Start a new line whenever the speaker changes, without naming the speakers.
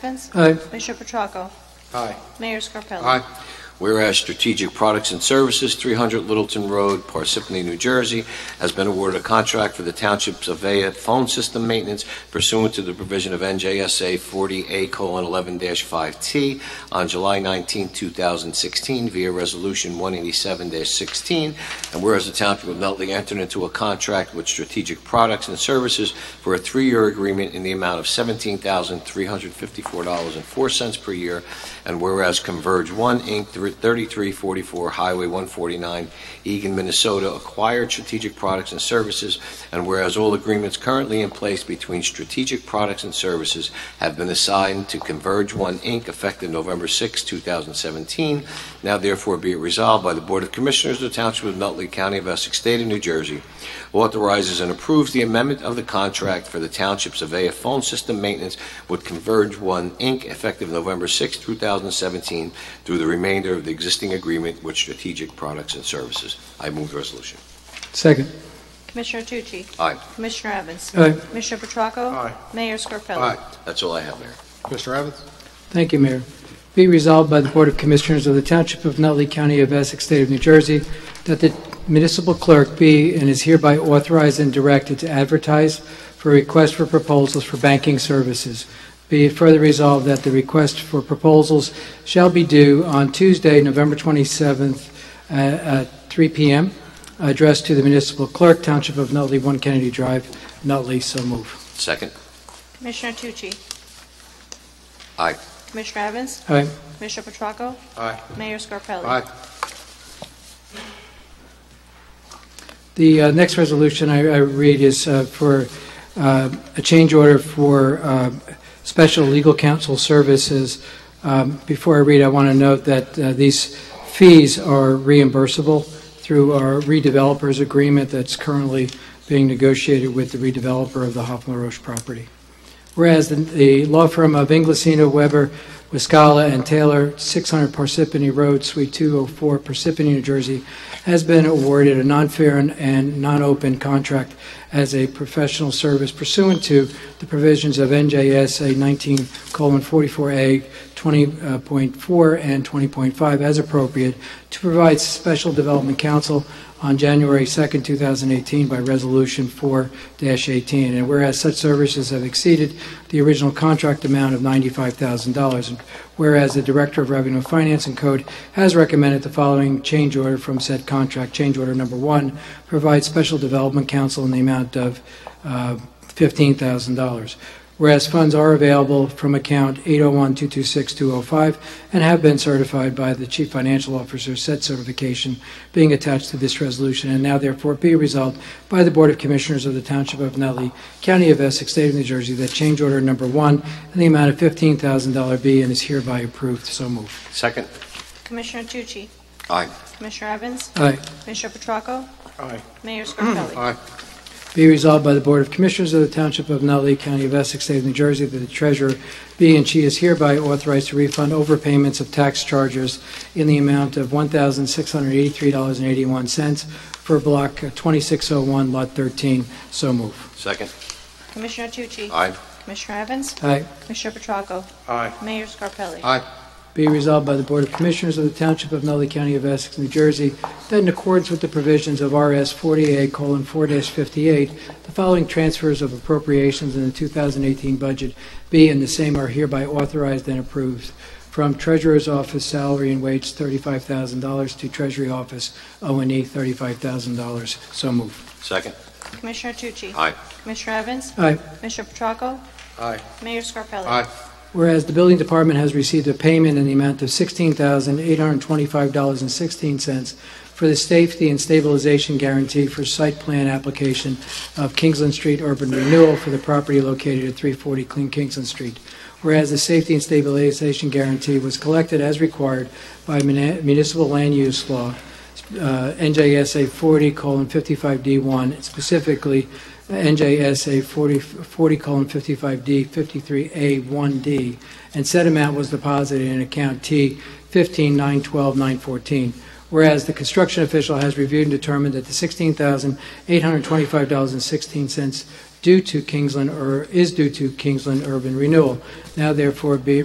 Evans?
Aye.
Commissioner Petracco?
Aye.
Mayor Scarpelli?
Aye.
Whereas Strategic Products and Services, 300 Littleton Road, Parsippany, New Jersey, has been awarded a contract for the township's Avaya phone system maintenance pursuant to the provision of NJSA 40A:11-5T on July 19, 2016 via Resolution 187-16. And whereas the Township of Nutley entered into a contract with Strategic Products and Services for a three-year agreement in the amount of $17,354.04 per year and whereas Converge One, Inc., 3344 Highway 149, Eagan, Minnesota, acquired Strategic Products and Services, and whereas all agreements currently in place between Strategic Products and Services have been assigned to Converge One, Inc., effective November 6, 2017, now therefore be it resolved by the Board of Commissioners of the Township of Nutley County of Essex, State of New Jersey, authorizes and approves the amendment of the contract for the Township's Avaya phone system maintenance with Converge One, Inc., effective November 6, 2017, through the remainder of the existing agreement with Strategic Products and Services. I move the resolution.
Second.
Commissioner Tucci?
Aye.
Commissioner Evans?
Aye.
Commissioner Petracco?
Aye.
Mayor Scarpelli?
Aye.
That's all I have, Mayor.
Mr. Evans?
Thank you, Mayor. Be resolved by the Board of Commissioners of the Township of Nutley County of Essex, State of New Jersey, that the municipal clerk be and is hereby authorized and directed to advertise for requests for proposals for banking services. Be it further resolved that the request for proposals shall be due on Tuesday, November 27th, uh, at 3 p.m., addressed to the municipal clerk, Township of Nutley, 1 Kennedy Drive, Nutley. So move.
Second.
Commissioner Tucci?
Aye.
Commissioner Evans?
Aye.
Commissioner Petracco?
Aye.
Mayor Scarpelli?
Aye.
The uh, next resolution I I read is uh, for uh, a change order for uh, special legal counsel services. Um, Before I read, I want to note that uh, these fees are reimbursable through our redevelopers agreement that's currently being negotiated with the redeveloper of the Hoffman Roche property. Whereas the- the law firm of Inglesino, Weber, Wiscalla, and Taylor, 600 Parsippany Road, Suite 204, Parsippany, New Jersey, has been awarded a non-fair and- and non-open contract as a professional service pursuant to the provisions of NJSA 19:44A 20.4 uh, and 20.5 as appropriate to provide special development counsel on January 2nd, 2018 by Resolution 4-18. And whereas such services have exceeded the original contract amount of $95,000, and whereas the Director of Revenue and Finance and Code has recommended the following change order from said contract. Change order number one, provide special development counsel in the amount of uh, $15,000. Whereas funds are available from account 801-226-205 and have been certified by the Chief Financial Officer, said certification being attached to this resolution, and now therefore be resolved by the Board of Commissioners of the Township of Nutley, County of Essex, State of New Jersey, that change order number one in the amount of $15,000 be and is hereby approved. So moved.
Second.
Commissioner Tucci?
Aye.
Commissioner Evans?
Aye.
Commissioner Petracco?
Aye.
Mayor Scarpelli?
Aye.
Be resolved by the Board of Commissioners of the Township of Nutley, County of Essex, State of New Jersey, that the treasurer be and she is hereby authorized to refund overpayments of tax charges in the amount of $1,683.81 for Block 2601, Lot 13. So move.
Second.
Commissioner Tucci?
Aye.
Commissioner Evans?
Aye.
Commissioner Petracco?
Aye.
Mayor Scarpelli?
Aye.
Be resolved by the Board of Commissioners of the Township of Nutley County of Essex, New Jersey, that in accordance with the provisions of RS 48:4-58, the following transfers of appropriations in the 2018 budget be and the same are hereby authorized and approved. From Treasurer's Office Salary and Wage $35,000 to Treasury Office E, O&E $35,000. So moved.
Second.
Commissioner Tucci?
Aye.
Commissioner Evans?
Aye.
Commissioner Petracco?
Aye.
Mayor Scarpelli?
Aye.
Whereas the building department has received a payment in the amount of $16,825.16 for the safety and stabilization guarantee for site plan application of Kingsland Street urban renewal for the property located at 340 Clean Kingsland Street. Whereas the safety and stabilization guarantee was collected as required by mun- municipal land use law, uh, NJSA 40:55D1, specifically NJSA 40 40:55D, 53A1D, and said amount was deposited in account T 15912914. Whereas the construction official has reviewed and determined that the $16,825.16 due to Kingsland, or is due to Kingsland Urban Renewal, now therefore be